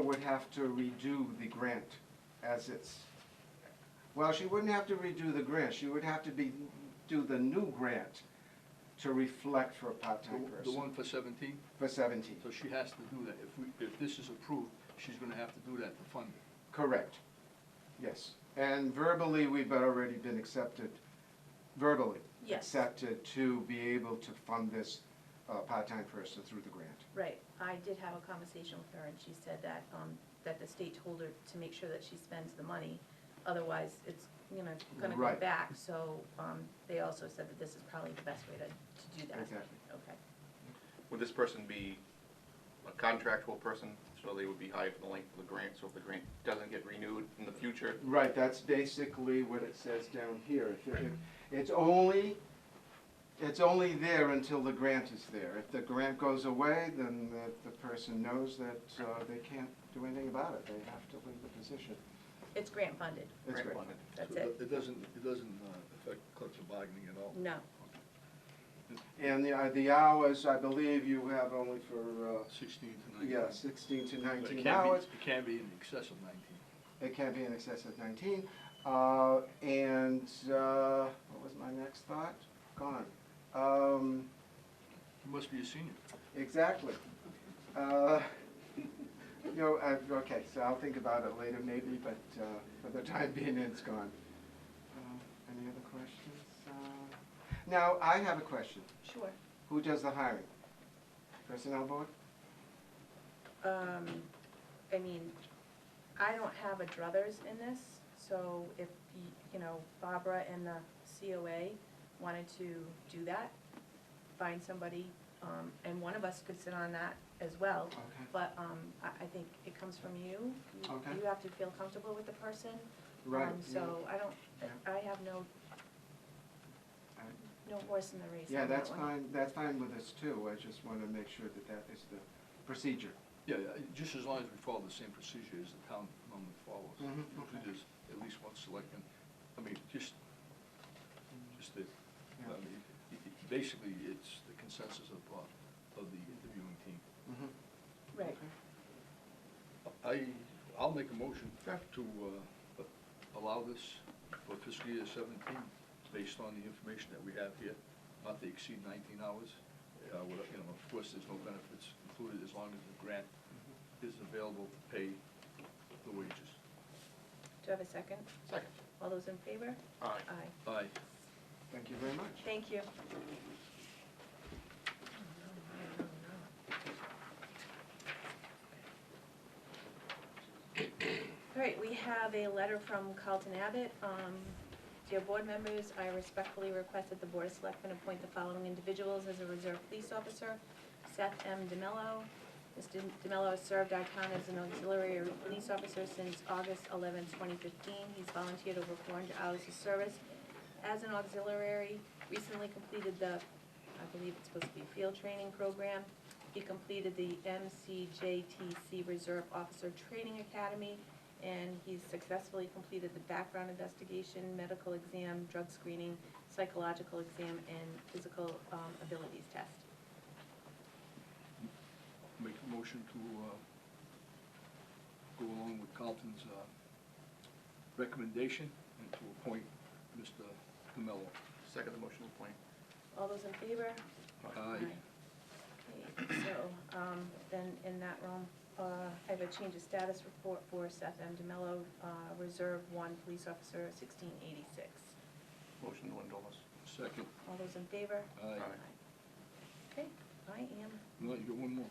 would have to redo the grant as it's, well, she wouldn't have to redo the grant, she would have to be, do the new grant to reflect for a part-time The- The one person for seventeen, for seventeen. so she has to do that. If we, if this is approved, she's gonna have to do that to fund it. Correct, yes. And verbally, we've already been accepted, verbally. Yes. Accepted to be able to fund this uh, part-time person through the grant. Right, I did have a conversation with her, and she said that, um, that the state told her to make sure that she spends the money, otherwise it's, you know, gonna go Right. back, so, um, they also said that this is probably the best way to, to do that. Exactly. Okay. Would this person be a contractual person, so they would be hired for the length of the grant, so if the grant doesn't get renewed in the future? Right, that's basically what it says down here. If it- if- It's only, it's only there until the grant is there. If the grant goes away, then the, the person knows that uh, they can't do anything about it. They have to leave the position. It's grant funded, It's great. funded. that's So it. It doesn't, it doesn't uh, affect collective bargaining at all. No, And the, uh, the hours, I believe you have only for, uh, Sixteen to nineteen. yeah, sixteen to But it nineteen can't be- hours. It can't be in excess of nineteen. It can't be in excess of nineteen. Uh, And, uh, what was my next thought? Gone. Um, You must be a senior. Exactly. Uh, You know, I- okay, so I'll think about it later maybe, but uh, for the time being, it's gone. Um, Any other questions? Uh, Now, I have a question. sure. Who does the hiring? Personnel board? Um, I mean, I don't have a druthers in this, so if, y- you know, Barbara and the COA wanted to do that, find somebody, um, and one of us could sit on that as well. Okay. But, um, I, I think it comes from you. You- Okay. You have to feel comfortable with the person. Right, Um, So yeah. I don't, Yeah. I have no, Uh, no horse in the race Yeah, on that that's one. fine, that's fine with us too. I just want to make sure that that is the procedure. Yeah, yeah, just as long as we follow the same procedure as the town normally follows. Mhm, Usually okay. there's at least one selectman, I mean, just, just the, I Yeah. mean, it- it- basically, it's the consensus of, uh, of the interviewing team. Mhm. Right. Okay. I, I'll make a motion Sure. to uh, allow this for fiscal year seventeen, based on the information that we have here, not to exceed nineteen hours. Uh, well, You know, of course, there's no benefits included as long as the grant is available to pay the wages. Do you have a second? Second. All those in favor? Aye. Aye. Aye. Thank you very much. Thank you. All right, we have a letter from Carlton Abbott. Um, Dear board members, I respectfully request that the Board of Selectmen appoint the following individuals as a reserve police officer. Seth M. DeMello. Mr. DeMello has served our town as an auxiliary police officer since August 11, 2015. He's volunteered over 400 hours of service as an auxiliary, recently completed the, I believe it's supposed to be field training program. He completed the MCJTC Reserve Officer Training Academy, and he's successfully completed the background investigation, medical exam, drug screening, psychological exam, and physical um, abilities test. Make a motion to uh, go along with Carlton's uh, recommendation and to appoint Mr. DeMello. Second the motion to appoint. All those in favor? Aye. Okay, So, um, then in that room, uh, I have a change of status report for Seth M. DeMello, uh, Reserve One Police Officer, 1686. Motion to endorse. Second. All those in favor? Aye. Aye. Okay, I am, No, you got one more.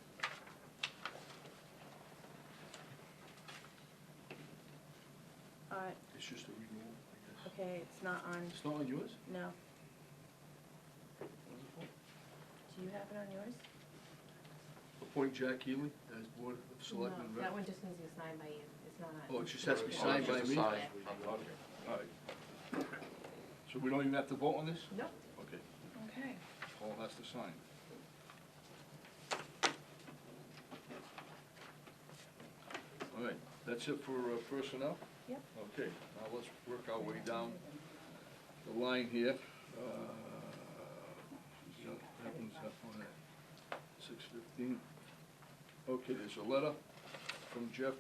uh, It's just a renewal, I guess. okay, it's not on, It's not on yours? no. Do you have it on yours? Appoint Jack Healy as Board of Selectmen No, that rep. one just needs to be signed by you, it's not. Oh, it just has to be signed by me? Signed. Okay. All right. So we don't even have to vote on this? Nope. Okay, Okay. Paul has to sign. All right, that's it for uh, personnel? Yep. Okay, now let's work our way down the line here. Uh, That one's up on that, six fifteen. Okay, there's a letter from Jeff